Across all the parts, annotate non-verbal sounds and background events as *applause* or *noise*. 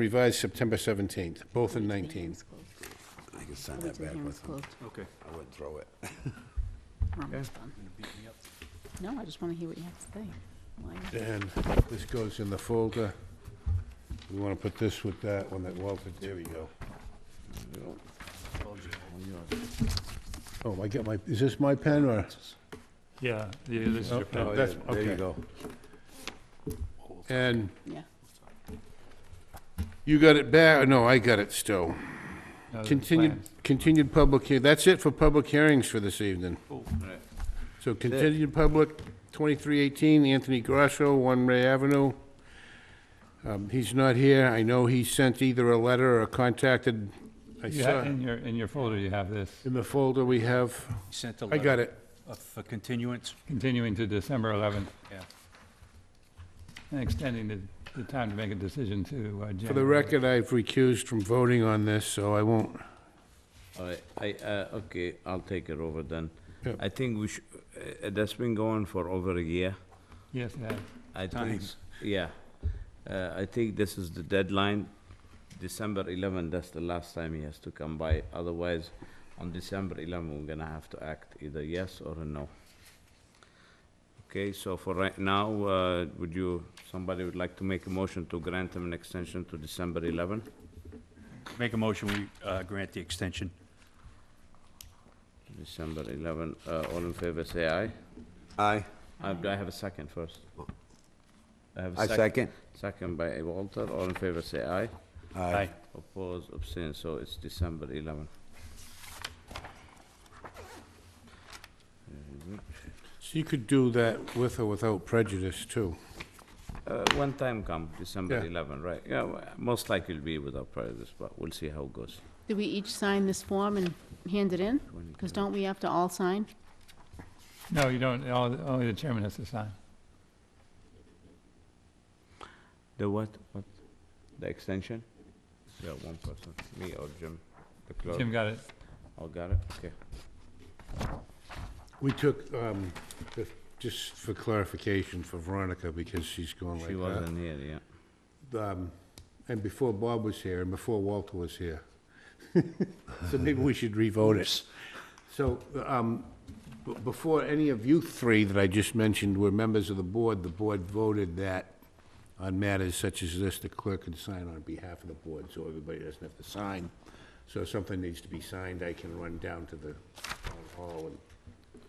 revised September 17th, both in 19. I can send that back with them. Okay. I wouldn't throw it. We're almost done. Um, No, I just want to hear what you have to say. Why not? And this goes in the folder. We want to put this with that one that Walter, there we go. Oh, I get my, is this my pen or? Yeah, yeah, this is your Oh, pen. that's- There you okay. go. And Yeah, you got it back, no, I got it still. No, the Continued, plans. continued public, hea- that's it for public hearings for this evening. So continued public, 2318 Anthony Grasso, One Ray Avenue. Um, He's not here. I know he sent either a letter or contacted, I You saw, have, in your, in your folder, you have this, in the folder we have, Sent a I letter. got it. of- For continuance, continuing to December 11th, yeah. and extending the, the time to make a decision to uh, January. For the record, I've recused from voting on this, so I won't. All right, I, uh, okay, I'll take it over then. Yeah. I think we should, uh, uh, that's been going for over a year. Yes, it has. I think, Times. yeah. Uh, I think this is the deadline, December 11, that's the last time he has to come by. Otherwise, on December 11, we're gonna have to act either yes or a no. Okay, so for right now, uh, would you, somebody would like to make a motion to grant him an extension to December 11? Make a motion, we uh, grant the extension. December 11, uh, all in favor, say aye. Aye. Uh, Do I have a second first? I have I a second. second. Second by Walter, all in favor say aye. Aye. Oppose, abstain, so it's December 11. So you could do that with or without prejudice, too. Uh, When time come, December Yeah. 11, right? Yeah, well, most likely it'll be without prejudice, but we'll see how it goes. Did we each sign this form and hand it in? Because don't we have to all sign? No, you don't, all- only the chairman has to sign. The what, what? The extension? Yeah, one person, me or Jim, the clerk. Jim got it. Oh, got it, okay. We took, um, if- just for clarification for Veronica, because she's going like that. She wasn't here, yeah. um, and before Bob was here, and before Walter was here. *laughs* So maybe we should revote it. So, um, b- before any of you three that I just mentioned were members of the board, the board voted that on matters such as this, the clerk can sign on behalf of the board, so everybody doesn't have to sign. So if something needs to be signed, I can run down to the town hall, and,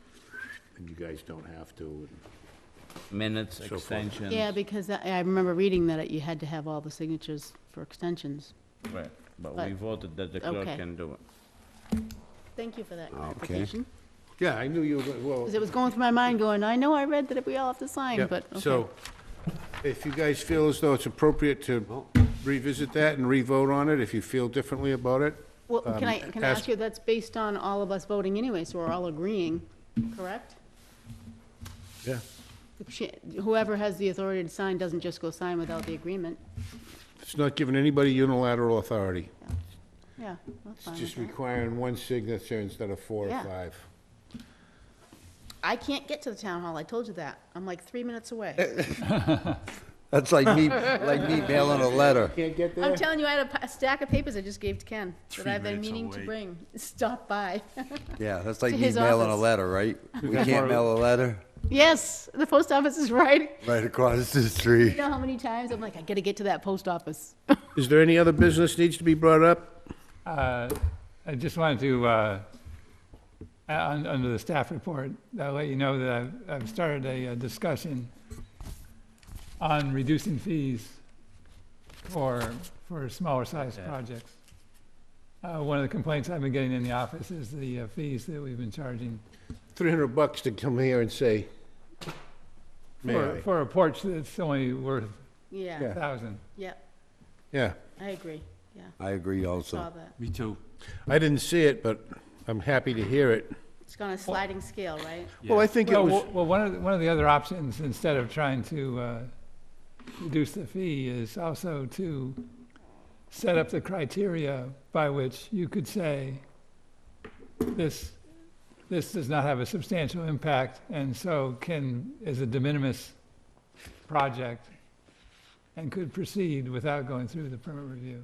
and you guys don't have to. and- Minutes, So far. extensions. Yeah, because I I remember reading that you had to have all the signatures for extensions. Right, but But- we voted that the clerk okay. can do it. Thank you for that clarification. Yeah, I knew you were, go- well. Because it was going through my mind going, I know I read that we all have to sign, Yep, but, okay. So, if you guys feel as though it's appropriate to revisit that and re-vote on it, if you feel differently about it, Well, can I, um, can I ask- ask you, that's based on all of us voting anyway, so we're all agreeing, correct? Yeah. If she- Whoever has the authority to sign doesn't just go sign without the agreement. it's not giving anybody unilateral authority. Yeah, that's It's fine. just with that. requiring one signature instead of four or Yeah. five. I can't get to the town hall, I told you that. I'm like three minutes away. That's like *laughs* me, like me mailing a letter. Can't get I'm there? telling you, I had a pa- stack of papers I just gave to Ken that Three I've been minutes meaning to away. bring. *laughs* Stop by. *laughs* Yeah, that's like To me his mailing a office. letter, right? We can't mail a letter Yes, the post office is right. right across the You street. know how many times I'm like, I gotta get to that post office. Is there any other business needs to be brought up? Uh, I just wanted to, uh, uh, un- under the staff report, I'll let you know that I've- I've started a uh, discussion on reducing fees for, for smaller-sized Yeah. projects. Uh, One of the complaints I've been getting in the office is the uh, fees that we've been charging Three hundred bucks to come here and say, may for, I? for a porch that's only worth a Yeah, Yeah. thousand. yeah, Yeah, I agree, yeah, I agree saw also. that. Me too. I didn't see it, but I'm happy to hear it. It's on a sliding scale, right? Well, I think it Well, was, w- well, one of, the- one of the other options, instead of trying to uh, reduce the fee, is also to set up the criteria by which you could say, this, this does not have a substantial impact, and so can, is a de minimis project, and could proceed without going through the permit review.